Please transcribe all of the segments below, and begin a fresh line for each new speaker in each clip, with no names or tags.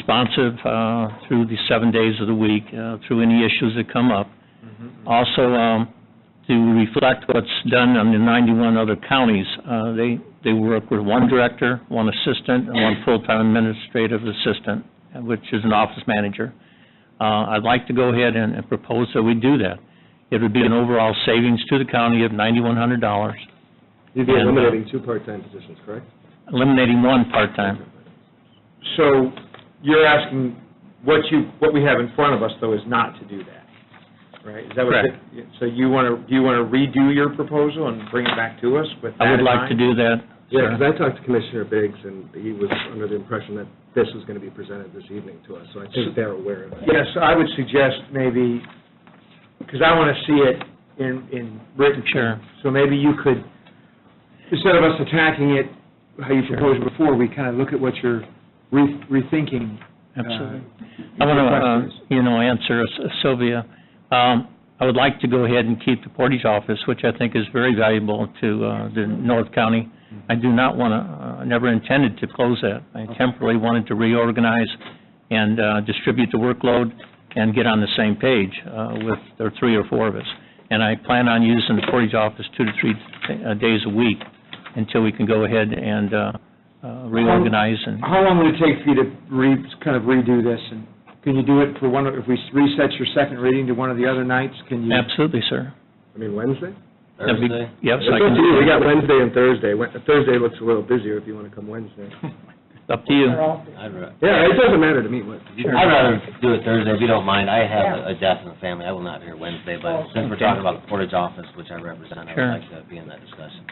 responsive uh, through the seven days of the week, uh, through any issues that come up. Also, um, to reflect what's done on the 91 other counties, uh, they, they work with one director, one assistant, and one full-time administrative assistant, which is an office manager. Uh, I'd like to go ahead and and propose that we do that. It would be an overall savings to the county of $9,100,
You'd be
And, uh,
eliminating two part-time positions, correct?
eliminating one part-time.
So you're asking, what you, what we have in front of us, though, is not to do that, right? Is that what?
Correct.
So you want to, do you want to redo your proposal and bring it back to us with
I
that
would
in
like to
mind?
do that,
Yeah,
sir.
because I talked to Commissioner Biggs, and he was under the impression that this was going to be presented this evening to us, so I think they're aware of it.
Yes, I would suggest maybe, because I want to see it in, in written.
Sure.
So maybe you could, instead of us attacking it how you proposed before, we kind of look at what you're re- rethinking. uh,
Absolutely. I uh,
your
want
questions.
to, you know, answer S- Sylvia. Um, I would like to go ahead and keep the Portage office, which I think is very valuable to uh, the North County. I do not want to, I never intended to close that. I temporarily wanted to reorganize and uh, distribute the workload and get on the same page uh, with the three or four of us. And I plan on using the Portage office two to three uh, days a week until we can go ahead and uh, uh, reorganize and
How long would it take for you to re, kind of redo this? And can you do it for one, of- if we reset your second reading to one of the other nights, can you?
Absolutely, sir.
I mean, Wednesday?
That'd be- Yes,
It's
I
up to
can,
you. We got Wednesday and Thursday. Wed- Thursday looks a little busier if you want to come Wednesday.
up to you. Oh,
I'd ra-
Yeah, it doesn't matter to me what.
I'd rather do it Thursday, if you don't mind. I have a- a death in the family, I will not be here Wednesday, but since we're talking about the Portage office, which I represent, I
Sure.
would like to be in that discussion.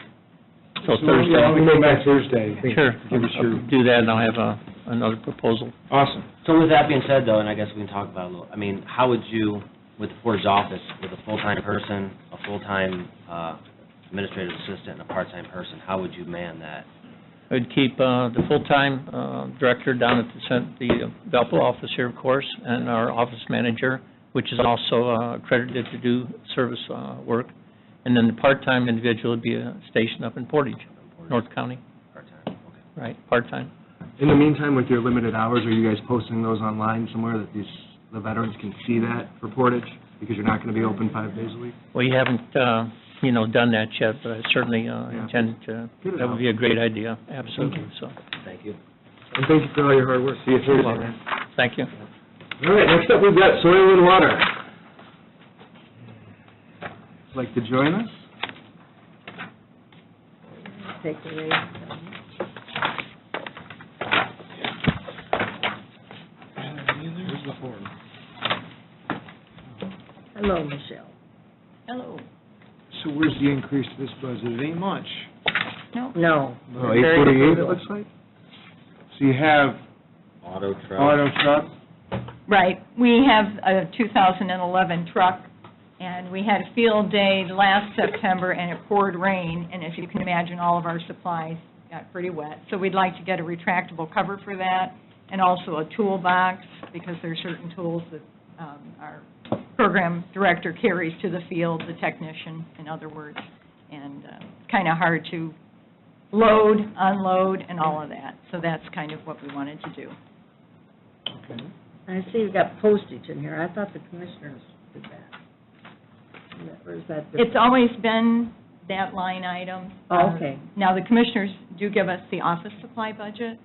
So
Yeah,
Thursday,
we go back Thursday.
sure,
Give us your-
do that, and I'll have a- another proposal.
Awesome.
So with that being said, though, and I guess we can talk about it a little, I mean, how would you, with the Portage office, with a full-time person, a full-time uh, administrative assistant, and a part-time person, how would you man that?
I'd keep uh, the full-time uh, director down at the cent- the uh, Valpo office here, of course, and our office manager, which is also uh, accredited to do service uh, work, and then the part-time individual would be uh, stationed up in Portage, North County,
Part-time, okay.
right, part-time.
In the meantime, with your limited hours, are you guys posting those online somewhere that these, the veterans can see that for Portage? Because you're not going to be open five days a week?
We haven't, uh, you know, done that yet, but I certainly uh,
Yeah.
intend to,
Get it
that would
out.
be a great idea, absolutely, so,
Thank you.
And thank you for all your hard work. See you Thursday,
welcome.
man.
thank you.
All right, next up, we've got soil and water. Like to join us?
take away. Hello, Michelle. Hello.
So where's the increase to this budget? It ain't much.
No,
Oh, eight forty-eight, it looks like.
So you have
Auto truck.
auto truck,
Right. We have a 2011 truck, and we had a field day last September, and it poured rain, and as you can imagine, all of our supplies got pretty wet. So we'd like to get a retractable cover for that, and also a toolbox, because there are certain tools that um, our program director carries to the field, the technician, in other words, and kind of hard to load, unload, and all of that. So that's kind of what we wanted to do.
I see you've got postage in here. I thought the commissioners did that. Or is that different?
It's always been that line item.
Oh, okay.
Uh, Now, the commissioners do give us the office supply budget,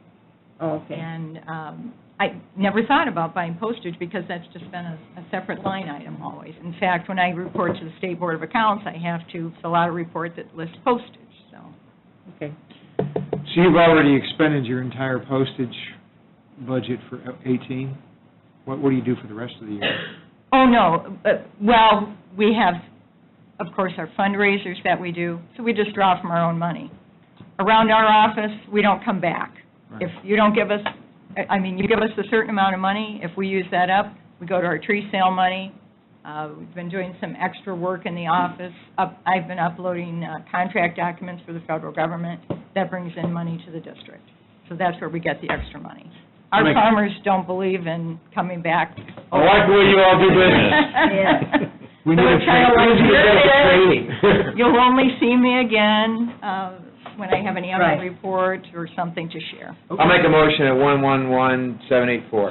Oh, okay.
and um, I never thought about buying postage because that's just been a a separate line item always. In fact, when I report to the State Board of Accounts, I have to fill out a report that lists postage, so.
Okay.
so you've already expended your entire postage budget for 18? What, what do you do for the rest of the year?
Oh, no, but- well, we have, of course, our fundraisers that we do, so we just draw from our own money. Around our office, we don't come back. If you don't give us, I- I mean, you give us a certain amount of money, if we use that up, we go to our tree sale money. Uh, We've been doing some extra work in the office. Up- I've been uploading uh, contract documents for the federal government. That brings in money to the district. So that's where we get the extra money. Our
Make-
farmers don't believe in coming back.
I like the way you all do business. We need
So
a
it's kinda
train- we
like,
need to get a
"You're
training.
You'll only see me again, uh, when I have an annual
Right.
report or something to share.
I'll make a motion at one-one-one-seven-eight-four.